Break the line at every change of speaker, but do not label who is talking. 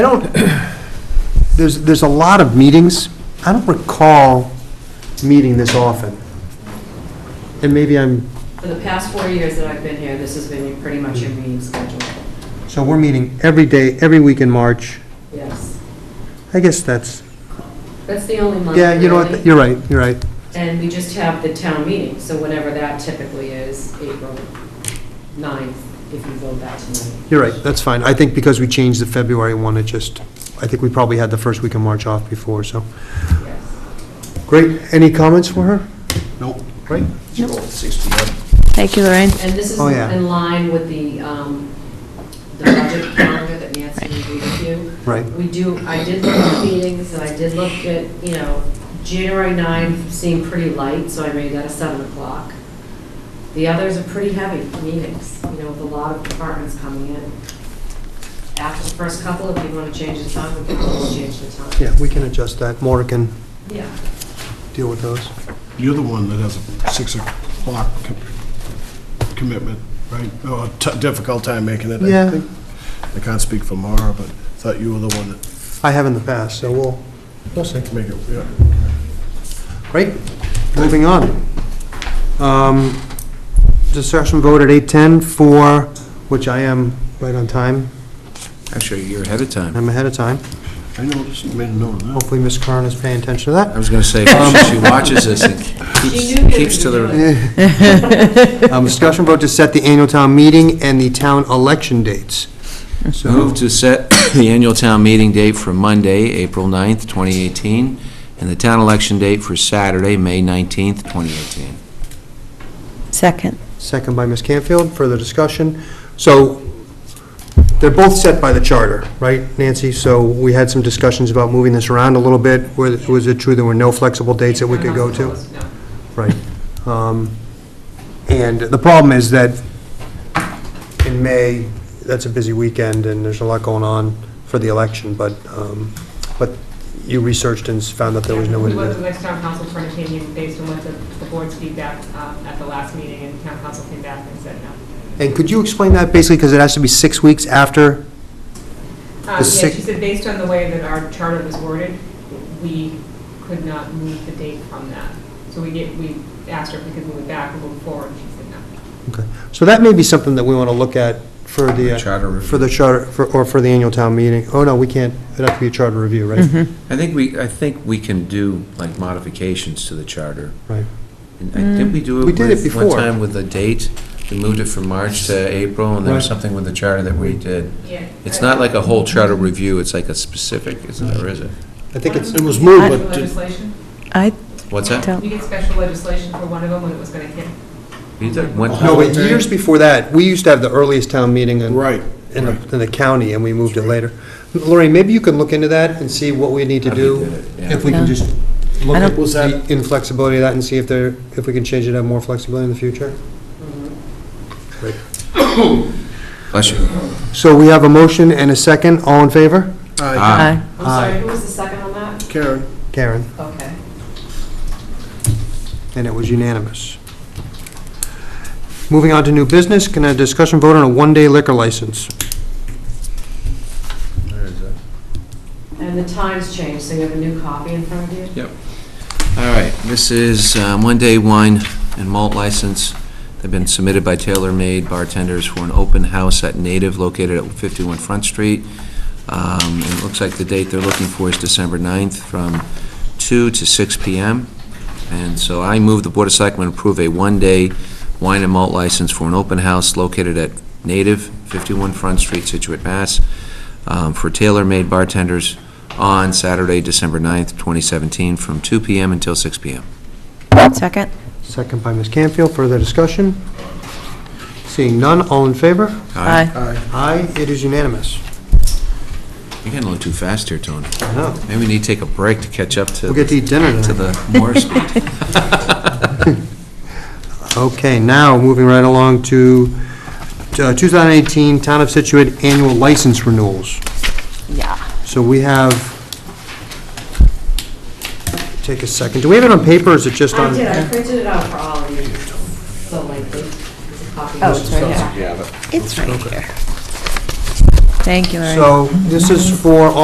don't, there's, there's a lot of meetings. I don't recall meeting this often. And maybe I'm,
For the past four years that I've been here, this has been pretty much your meeting schedule.
so we're meeting every day, every week in March.
Yes.
I guess that's,
That's the only month,
yeah, you know what,
really.
you're right, you're right.
And we just have the town meeting, so whenever that typically is, April 9th, if you vote that tonight.
You're right, that's fine. I think because we changed the February one, it just, I think we probably had the first week of March off before, so.
Yes.
Great, any comments for her?
Nope.
Great.
Still at 6 PM.
Thank you, Lorraine.
And this is
Oh, yeah.
in line with the, um, the budget calendar that Nancy reviewed with you.
Right.
We do, I did look at meetings, and I did look at, you know, January 9th seemed pretty light, so I made that a 7 o'clock. The others are pretty heavy meetings, you know, with a lot of departments coming in. After the first couple, if you want to change the time, we can always change the time.
Yeah, we can adjust that. Maura can
Yeah.
deal with those.
You're the one that has a 6 o'clock com- commitment, right? Oh, a t- Difficult time making it. I
Yeah.
think. I can't speak for Mara, but I thought you were the one that
I have in the past, so we'll, we'll see.
can make it, yeah.
Great, moving on. Um, Discussion vote at 8:10 for, which I am right on time,
Actually, you're ahead of time.
I'm ahead of time.
I noticed, made a note of that.
Hopefully Ms. Curran is paying attention to
I
that.
was going to say, she she watches this and
She
keeps-
knew that
keeps to
you were
the,
doing it.
Um, Discussion vote to set the annual town meeting and the town election dates. So,
move to set the annual town meeting date for Monday, April 9th, 2018, and the town election date for Saturday, May 19th, 2018.
Second.
second by Ms. Canfield, further discussion. So, they're both set by the charter, right, Nancy? So we had some discussions about moving this around a little bit. Was was it true there were no flexible dates that we could go to?
No.
Right. Um, And the problem is that in May, that's a busy weekend, and there's a lot going on for the election, but, um, but you researched and found that there was no way
We
to do
went to the
that.
next town council for an opinion based on what the, the board's feedback um, at the last meeting, and town council came back and said no.
And could you explain that, basically, because it has to be six weeks after?
Um, Yeah,
The sec-
she said based on the way that our charter was worded, we could not move the date from that. So we get, we asked her if we could move it back or move forward, and she said no.
Okay. So that may be something that we want to look at for the, uh,
Charter review.
for the charter, for- or for the annual town meeting. Oh, no, we can't, it'd have to be a charter review, right?
I think we, I think we can do like modifications to the charter.
Right.
And I- Didn't we do it?
Mm. We did it
with-
before.
One time with the date, we moved it from March to April, and there was
Right.
something with the charter that we did.
Yeah.
It's not like a whole charter review, it's like a specific, isn't it, or is it?
I think it's,
It was moved,
Special
but did-
legislation?
I
What's that?
You
don't,
get special legislation for one of them when it was gonna hit.
You did one-
no, but years before that, we used to have the earliest town meeting in
right.
in the, in the county, and we moved it later. Lorraine, maybe you can look into that and see what we need to
How we did
do,
it, yeah.
if we can
Yeah.
just look
I
at
don't-
Was
the
that-
inflexibility of that and see if there, if we can change it, to have more flexibility in the future.
Bless you.
So we have a motion and a second, all in favor?
Aye.
Ah.
aye.
I'm
Uh,
sorry, who was the second on that?
Karen,
Karen,
Okay.
and it was unanimous. Moving on to new business, can a discussion vote on a one-day liquor license?
Where is that?
And the times changed, so you have a new copy in front of you?
Yep. All right, this is um, one-day wine and malt license. They've been submitted by Taylor Made bartenders for an open house at Native located at 51 Front Street. Um, and It looks like the date they're looking for is December 9th from 2 to 6 p.m. And so I move the Board of Selectmen approve a one-day wine and malt license for an open house located at Native, 51 Front Street, Situate, Mass, um, for Taylor Made bartenders on Saturday, December 9th, 2017, from 2 PM until 6 PM.
Second.
Second by Ms. Canfield, further discussion? Seeing none, all in favor?
Aye.
Aye, it is unanimous.
You're getting a little too fast here, Tony.
I know.
Maybe we need to take a break to catch up
We'll
to,
get to eat dinner tonight.
to the more speed.
Okay, now, moving right along to uh, 2018 Town of Situate Annual License Renewals.
Yeah.
So we have, take a second, do we have it on paper, or is it just on?
I did, I printed it out for all of you, so lengthy. It's a copy.
Oh, it's right here. It's right here. Thank you, Lorraine.
So, this is for all